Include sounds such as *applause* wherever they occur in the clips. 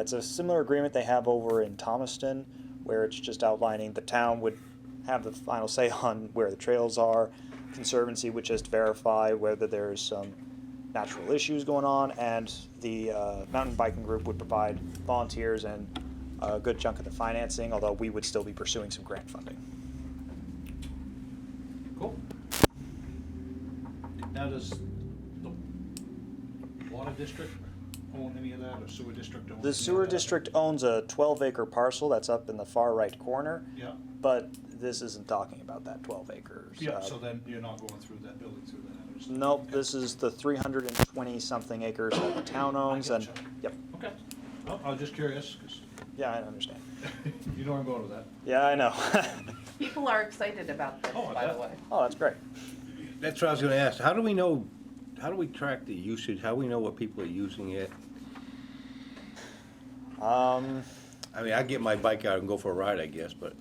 It's a similar agreement they have over in Thomaston, where it's just outlining the town would have the final say *laughs* on where the trails are. Conservancy would just verify whether there's some natural issues going on, and the uh, mountain biking group would provide volunteers and a good chunk of the financing, although we would still be pursuing some grant funding. Cool. Now, does the water district own any of that, or sewer district own? any The of sewer that? district owns a 12 acre parcel that's up in the far right corner, Yeah, but this isn't talking about that 12 acres. yeah, Uh, so then you're not going through that building through that. I understand. Nope, Okay. this is the 320 something acres that the town owns and, gotcha. yep, Okay, Well, I was just curious, because yeah, I understand. *laughs* you know where I'm going with that. Yeah, I know. People are excited about this, Oh, I by bet. the way. *laughs* Oh, that's great. That's what I was gonna ask, how do we know, how do we track the usage, how do we know what people are using it? Um, I mean, I get my bike out and go for a ride, I guess, but,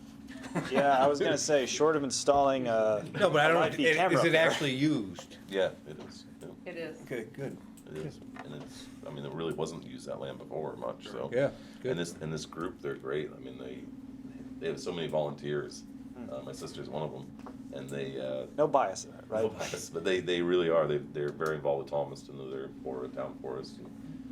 yeah, I was gonna say, short of installing a. *laughs* no, but I a don't, live-feed camera is up it there. actually used? Yeah, it is. It- It is. Okay, good, It is, and it's. I mean, it really wasn't used that land before much. So yeah, and good. this and this group, they're great. I mean, they they have so many volunteers. Hmm. Uh, my sister's one of them, and they uh, No bias, in it, no right? bias, *laughs* but they they really are. They they're very involved with Thomaston. They're for a town *laughs* forest.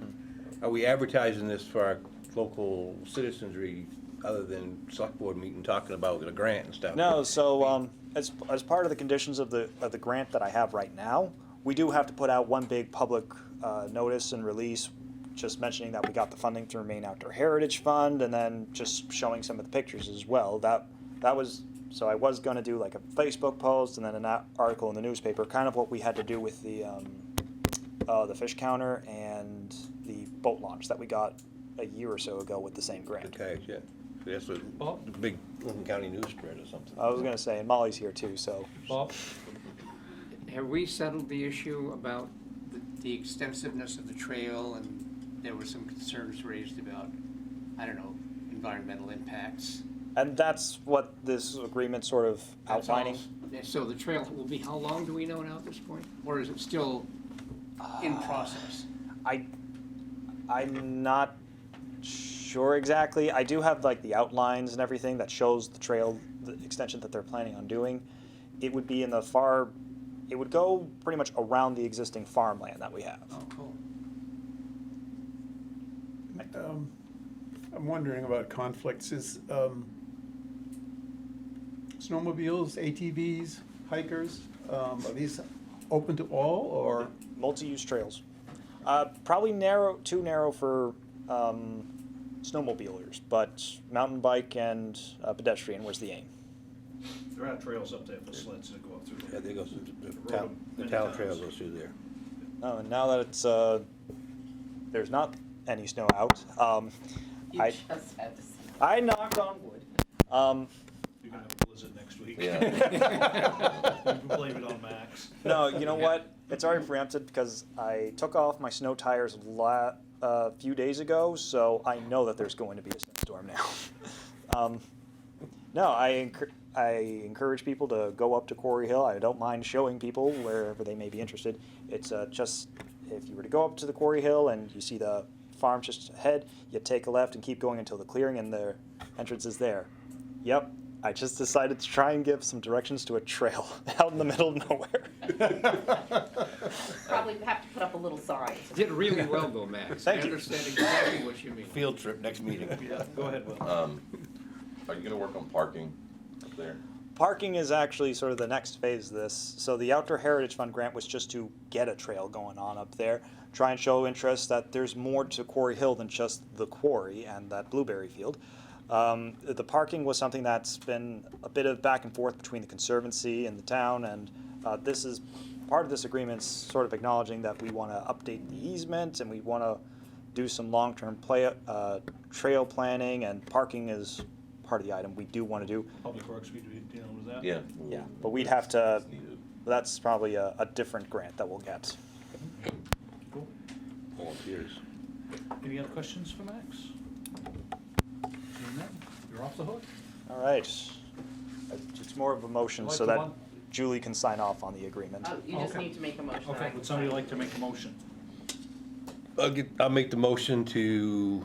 And Are we advertising this for our local citizenry, other than select board meeting, talking about the grant and stuff? No, so, um, as, as part of the conditions of the, of the grant that I have right now, we do have to put out one big public, uh, notice and release, just mentioning that we got the funding through Maine Outdoor Heritage Fund, and then just showing some of the pictures as well. That, that was, so I was gonna do like a Facebook post and then an a- article in the newspaper, kind of what we had to do with the, um, uh, the fish counter and the boat launch that we got a year or so ago with the same grant. Okay, yeah, that's a Well- big Lincoln County news spread or something. I was gonna say, and Molly's here too, so. Bob, Have we settled the issue about the- the extensiveness of the trail and there were some concerns raised about, I don't know, environmental impacts? And that's what this agreement sort of That's all. outlining. Yeah, So the trail will be, how long do we know now at this point? Or is it still in process? I, I'm not sure exactly. I do have like the outlines and everything that shows the trail, the extension that they're planning on doing. It would be in the far, it would go pretty much around the existing farmland that we have. Oh, cool. Um, I'm wondering about conflicts, is, um, snowmobiles, ATVs, hikers, um, are these open to all, or, Multi-use trails. Uh, probably narrow, too narrow for um, snowmobilers, but mountain bike and uh, pedestrian was the aim. there are trails up there for sleds that go up through Yeah, there. there goes, the- the Road town, the many town times. trail goes through there. No, and now that it's uh, there's not any snow out, um, You I- just had to say. I knocked on wood. Um, You're gonna have a blizzard next *laughs* week. Yeah. *laughs* You can blame it on Max. no, you know what? It's already preempted because I took off my snow tires la- a few days ago, so I know that there's going to be a snowstorm now. *laughs* um, no, I encour- I encourage people to go up to Quarry Hill. I don't mind showing people wherever they may be interested. It's uh, just if you were to go up to the Quarry Hill and you see the farm just ahead, you take a left and keep going until the clearing and the entrance is there. Yep, I just decided to try and give some directions to a trail *laughs* out in the middle of nowhere. *laughs* Probably have to put up a little sign. *laughs* Did really well though, Max. Thank I you. understand exactly what you mean. Field trip, next meeting. *laughs* Yeah, go ahead, Will. um, are you gonna work on parking up there? Parking is actually sort of the next phase of this. So the Outdoor Heritage Fund grant was just to get a trail going on up there, try and show interest that there's more to Quarry Hill than just the quarry and that blueberry field. Um, the parking was something that's been a bit of back and forth between the conservancy and the town, and uh, this is part of this agreement's sort of acknowledging that we want to update the easement and we want to do some long-term play, uh, trail planning, and parking is part of the item we do want to do. Public Works, we be dealing with that? Yeah. Yeah, but we'd have to, It's needed. that's probably a, a different grant that we'll get. Cool. Volunteers. Any other questions for Max? Seeing none, You're off the hook. All right. It's more of a motion Like so the that one- Julie can sign off on the agreement. Oh, You just Okay. need to make a motion. I Okay, can would somebody sign. like to make a motion? I'll get, I'll make the motion to